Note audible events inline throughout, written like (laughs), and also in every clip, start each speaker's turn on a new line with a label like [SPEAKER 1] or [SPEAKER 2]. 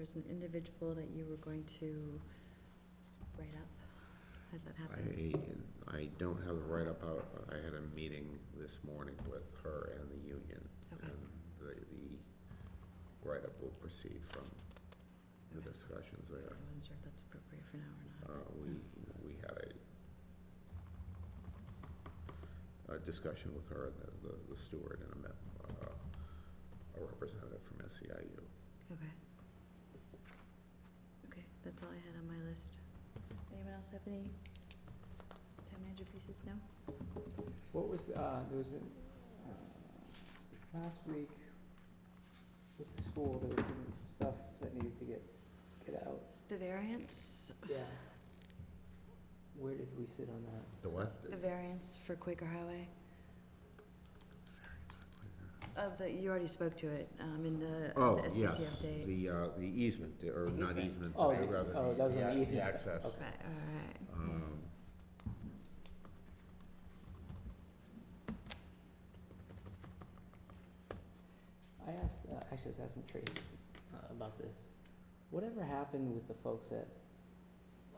[SPEAKER 1] as an individual that you were going to write up? Has that happened?
[SPEAKER 2] I, I don't have the write-up out, but I had a meeting this morning with her and the union.
[SPEAKER 1] Okay.
[SPEAKER 2] And the, the write-up will proceed from the
[SPEAKER 1] Okay.
[SPEAKER 2] discussions
[SPEAKER 1] I
[SPEAKER 2] there.
[SPEAKER 1] wasn't sure if that's appropriate for now
[SPEAKER 2] Uh,
[SPEAKER 1] or not.
[SPEAKER 2] we, we had a, a discussion with her, the- the, the steward and a, me- uh, a representative from E SEIU.
[SPEAKER 1] Okay. Okay, that's all I had on my list. Anyone else have any town manager pieces? No?
[SPEAKER 3] What was, uh, there was, a- uh, last week with the school, there was some stuff that needed to get, get out,
[SPEAKER 1] The variance,
[SPEAKER 3] yeah. Where did we sit on that?
[SPEAKER 2] The what?
[SPEAKER 1] the variance for Quaker Highway? Of the, you already spoke to it, um, in the uh,
[SPEAKER 2] Oh,
[SPEAKER 1] the SPC
[SPEAKER 2] yes,
[SPEAKER 1] update.
[SPEAKER 2] the, uh, the easement, or not
[SPEAKER 1] Easement.
[SPEAKER 2] easement,
[SPEAKER 3] Oh,
[SPEAKER 2] but
[SPEAKER 3] the-
[SPEAKER 2] rather
[SPEAKER 3] oh, that was on the
[SPEAKER 2] the, the ac- the
[SPEAKER 3] easement.
[SPEAKER 2] access.
[SPEAKER 3] Okay.
[SPEAKER 1] Right, all right.
[SPEAKER 2] Um,
[SPEAKER 3] I asked, uh, actually, I was asking Tracy uh, about this. Whatever happened with the folks at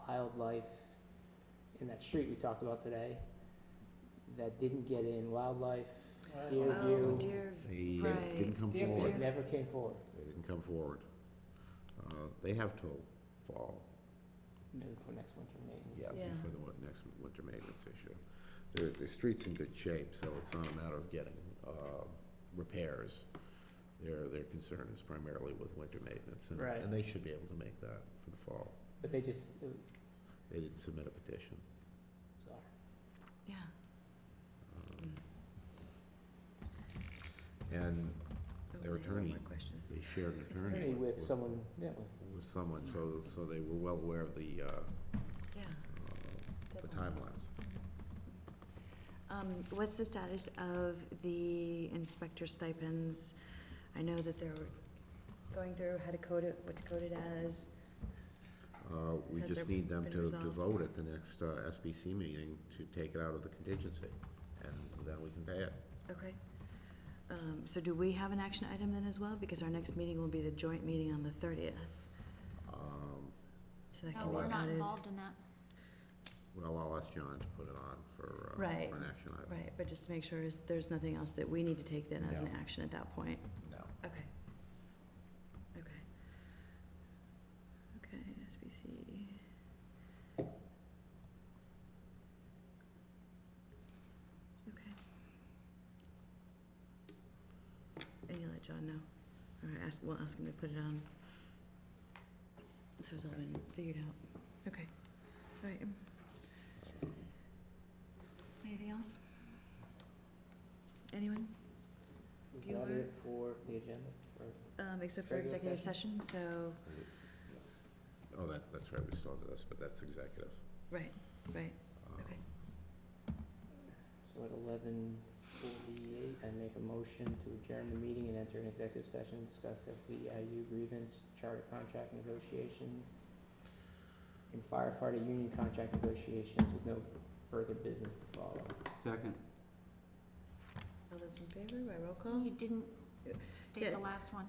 [SPEAKER 3] Wildlife in that street we talked about today that didn't get in, Wildlife, Deer
[SPEAKER 1] Oh,
[SPEAKER 3] View?
[SPEAKER 1] dear,
[SPEAKER 2] They uh,
[SPEAKER 1] Right.
[SPEAKER 2] didn't come
[SPEAKER 1] Deerfield.
[SPEAKER 3] They
[SPEAKER 2] forward.
[SPEAKER 1] Deerfield.
[SPEAKER 3] never came forward.
[SPEAKER 2] They didn't come forward. Uh, They have till fall,
[SPEAKER 3] Maybe for next winter maintenance.
[SPEAKER 2] yeah,
[SPEAKER 1] Yeah.
[SPEAKER 2] for the win- next winter maintenance issue. The, the street's in good shape, so it's not a matter of getting uh, repairs. Their, their concern is primarily with winter maintenance. and-
[SPEAKER 3] Right.
[SPEAKER 2] And they should be able to make that for the fall.
[SPEAKER 3] But they just, it was uh,
[SPEAKER 2] They didn't submit a petition.
[SPEAKER 3] bizarre.
[SPEAKER 1] yeah.
[SPEAKER 2] Um, And
[SPEAKER 1] Oh, I have one
[SPEAKER 2] Their
[SPEAKER 1] more
[SPEAKER 2] attorney.
[SPEAKER 1] question.
[SPEAKER 2] they shared an attorney
[SPEAKER 3] Attorney
[SPEAKER 2] with.
[SPEAKER 3] with someone, yeah, with
[SPEAKER 2] With someone, so, so they were well aware of the, uh,
[SPEAKER 1] Yeah.
[SPEAKER 2] uh, the
[SPEAKER 1] deadline.
[SPEAKER 2] timelines.
[SPEAKER 1] Um, what's the status of the inspector stipends? I know that they're going through how to code it, what to code it as.
[SPEAKER 2] Uh, we
[SPEAKER 1] Has
[SPEAKER 2] just
[SPEAKER 1] there
[SPEAKER 2] need them
[SPEAKER 1] been
[SPEAKER 2] to, to
[SPEAKER 1] resolved?
[SPEAKER 2] vote at the next, uh, SBC meeting to take it out of the contingency, and then we can pay it.
[SPEAKER 1] Okay. Um, so do we have an action item then as well? Because our next meeting will be the joint meeting on the thirtieth,
[SPEAKER 2] Um,
[SPEAKER 1] so that
[SPEAKER 4] No,
[SPEAKER 1] can be
[SPEAKER 4] Oh, we're not
[SPEAKER 1] added.
[SPEAKER 4] involved in that.
[SPEAKER 2] well, I'll ask John to put it on for, uh,
[SPEAKER 1] Right.
[SPEAKER 2] for an action item.
[SPEAKER 1] Right, but just to make sure, is, there's nothing else that we need to take then as an
[SPEAKER 2] No.
[SPEAKER 1] action at that point?
[SPEAKER 2] No.
[SPEAKER 1] Okay. Okay. Okay, SBC. Okay. And you let John know, or ask, we'll ask him to put it on. This has all been figured out. Okay, all right. Anything else? Anyone?
[SPEAKER 3] Is
[SPEAKER 1] You
[SPEAKER 3] that
[SPEAKER 1] were-
[SPEAKER 3] it for the agenda? Or
[SPEAKER 1] Um, except for
[SPEAKER 3] Regular
[SPEAKER 1] executive session, so,
[SPEAKER 2] Oh, that, that's right, we still have this, but that's executive.
[SPEAKER 1] right, right.
[SPEAKER 2] Um,
[SPEAKER 1] Okay.
[SPEAKER 3] So at eleven forty-eight, I make a motion to adjourn the meeting and enter an executive session, discuss SEIU grievance, charter contract negotiations, and firefighter union contract negotiations with no further business to follow.
[SPEAKER 5] Second.
[SPEAKER 1] All those in favor by roll call?
[SPEAKER 4] You didn't state
[SPEAKER 1] Yeah.
[SPEAKER 4] the last one.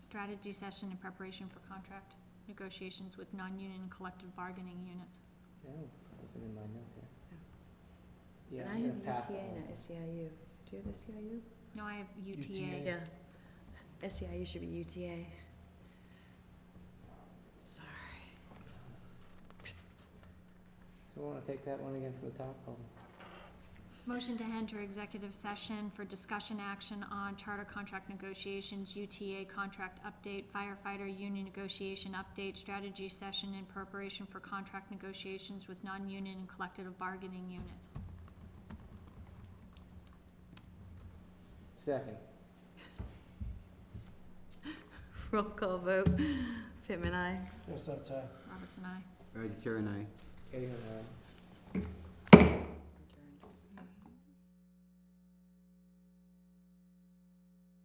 [SPEAKER 4] Strategy session in preparation for contract negotiations with non-union collective bargaining units.
[SPEAKER 3] No, that wasn't in my note here.
[SPEAKER 1] And
[SPEAKER 3] Yeah,
[SPEAKER 1] I
[SPEAKER 3] I'm
[SPEAKER 1] have
[SPEAKER 3] gonna pass that
[SPEAKER 1] UTA,
[SPEAKER 3] one.
[SPEAKER 1] not SEIU. E Do you have SEIU?
[SPEAKER 4] No, I have
[SPEAKER 3] UTA.
[SPEAKER 4] UTA.
[SPEAKER 1] Yeah. SEIU should be UTA. Sorry. (laughs)
[SPEAKER 3] So wanna take that one again from the top? Um,
[SPEAKER 4] Motion to enter executive session for discussion action on charter contract negotiations, UTA contract update, firefighter union negotiation update, strategy session in preparation for contract negotiations with non-union and collective bargaining units.
[SPEAKER 3] Second.
[SPEAKER 1] Roll call vote. Pittman, aye.
[SPEAKER 3] Yes, that's, uh.
[SPEAKER 4] Roberts and I.
[SPEAKER 5] All right, Chair and I.
[SPEAKER 3] Anyhow,